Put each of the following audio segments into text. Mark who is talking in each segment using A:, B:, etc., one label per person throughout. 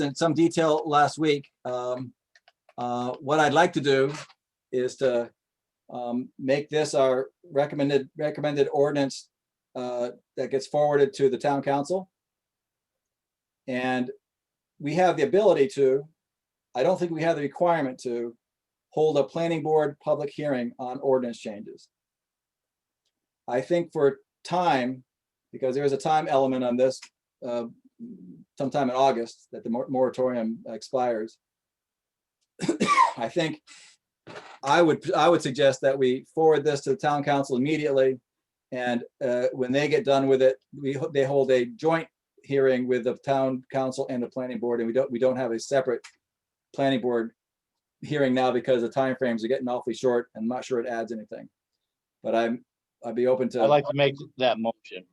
A: in some detail last week. Um, uh, What I'd like to do is to um, make this our recommended, recommended ordinance uh, that gets forwarded to the town council. And we have the ability to, I don't think we have the requirement to hold a planning board public hearing on ordinance changes. I think for time, because there is a time element on this, uh, sometime in August that the mor- moratorium expires. I think I would, I would suggest that we forward this to the town council immediately. And uh, when they get done with it, we, ho- they hold a joint hearing with the town council and the planning board, and we don't, we don't have a separate planning board hearing now because the timeframes are getting awfully short. and I'm not sure it adds anything. But I'm, I'd be open
B: I'd
A: to,
B: like to make that motion.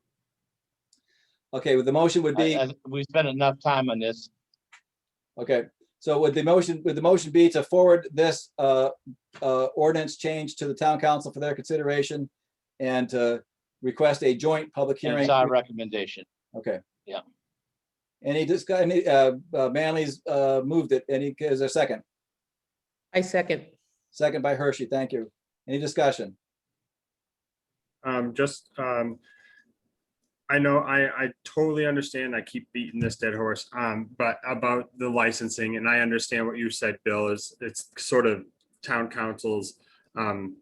A: okay, well, the motion would be.
B: I- I- We spent enough time on this.
A: Okay, so would the motion, would the motion be to forward this uh, uh, ordinance change to the town council for their consideration? And to request a joint public
B: and
A: hearing?
B: It's our recommendation.
A: Okay.
B: Yeah.
A: Any discuss, any, uh, uh, Manley's uh, moved it, any, is there a second?
C: I second.
A: Second by Hershey, thank you. Any discussion?
D: Um, just, um, I know, I, I totally understand. I keep beating this dead horse, um, but about the licensing and I understand what you said, Bill, is it's sort of town councils, um,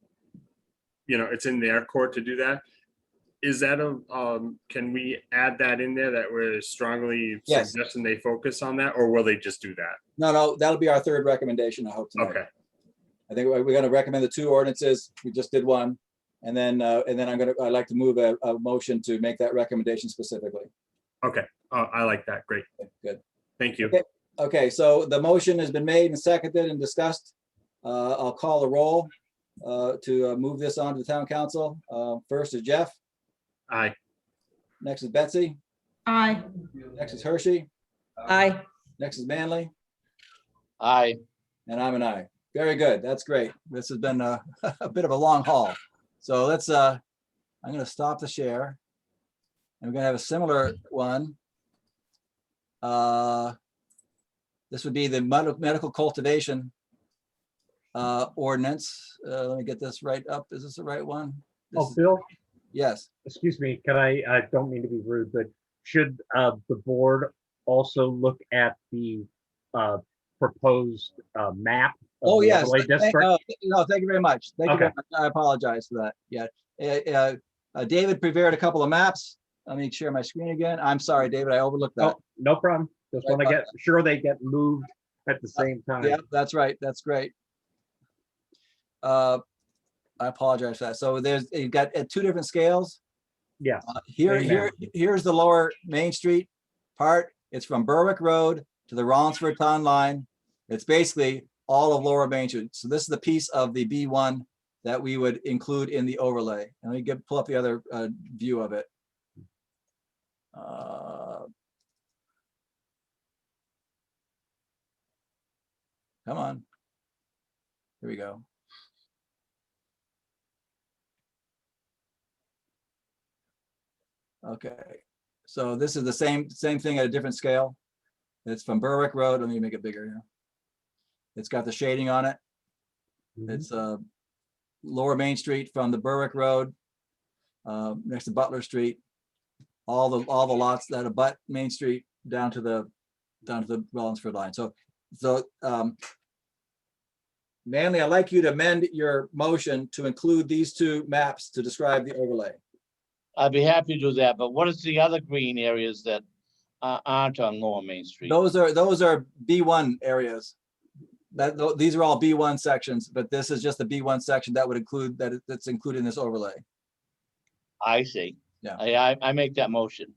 D: you know, it's in their court to do that. Is that a, um, can we add that in there that we're strongly
A: Yes.
D: suggesting they focus on that or will they just do that?
A: No, no, that'll be our third recommendation, I hope tonight.
D: Okay,
A: I think we're we're gonna recommend the two ordinances. We just did one. And then, uh, and then I'm gonna, I'd like to move a, a motion to make that recommendation specifically.
D: okay. Uh, I like that. Great.
A: Good.
D: Thank you.
A: Okay. Okay, so the motion has been made and seconded and discussed. Uh, I'll call the roll uh, to uh, move this on to the town council. Uh, First is Jeff,
D: Aye.
A: next is Betsy,
C: Aye.
A: next is Hershey,
C: Aye.
A: next is Manley,
B: I,
A: and I'm an I. Very good, that's great. This has been a a bit of a long haul. So let's, uh, I'm gonna stop the share. And we're gonna have a similar one. Uh, This would be the med- medical cultivation uh, ordinance. Uh, Let me get this right up. Is this the right one? This
E: Oh,
A: is-
E: Bill,
A: Yes,
E: excuse me, can I, I don't mean to be rude, but should uh, the board also look at the uh, proposed uh, map? of
A: Oh,
E: the
A: yes.
E: overlay
A: Thank-
E: district?
A: oh, th- No, thank you very much. Thank you. very
E: Okay.
A: much. I apologize for that. Yeah. Uh, uh, uh, David prepared a couple of maps. Let me share my screen again. I'm sorry, David, I overlooked that.
E: Oh, No problem. Just
A: Right
E: want to
A: about
E: get, sure they get moved at the same
A: Uh, Yeah,
E: time.
A: that's right. That's great. Uh, I apologize for that. So there's, you've got at two different scales.
E: Yeah.
A: Uh, Here,
E: Amen.
A: here, here's the lower Main Street part. It's from Berwick Road to the Rollinsford Town Line. It's basically all of Lower Main Street. So this is the piece of the B one that we would include in the overlay. And let me get, pull up the other uh, view of it. Uh, Come on. Here we go. Okay, so this is the same, same thing at a different scale. It's from Berwick Road. Let me make it bigger here. It's got the shading on it.
E: Mhm.
A: It's uh Lower Main Street from the Berwick Road, uh, next to Butler Street. All the, all the lots that abut Main Street down to the, down to the Rollinsford line. So, so um Manley, I'd like you to amend your motion to include these two maps to describe the overlay.
B: I'd be happy to do that, but what is the other green areas that a- aren't on Lower Main Street?
A: Those are, those are B1 areas. That, tho- these are all B1 sections, but this is just the B1 section that would include, that, it- that's included in this overlay.
B: I see.
A: Yeah.
B: I, I, I make that motion.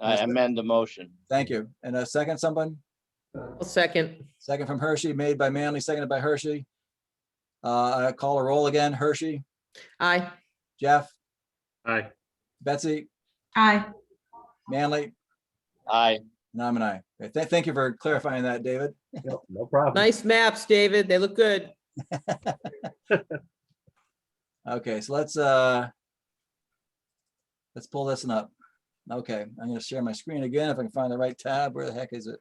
B: I
A: Yes, sir.
B: amend the motion.
A: Thank you. And a second, someone?
C: I'll second.
A: Second from Hershey, made by Manley, seconded by Hershey. Uh, I call a roll again. Hershey,
C: Aye.
A: Jeff,
D: Aye.
A: Betsy,
C: Aye.
A: Manley,
B: I,
A: and I'm an I. Okay, th- Thank you for clarifying that, David.
E: No no problem.
C: Nice maps, David. They look good.
A: Okay, so let's, uh, let's pull this one up. Okay, I'm gonna share my screen again if I can find the right tab. Where the heck is it?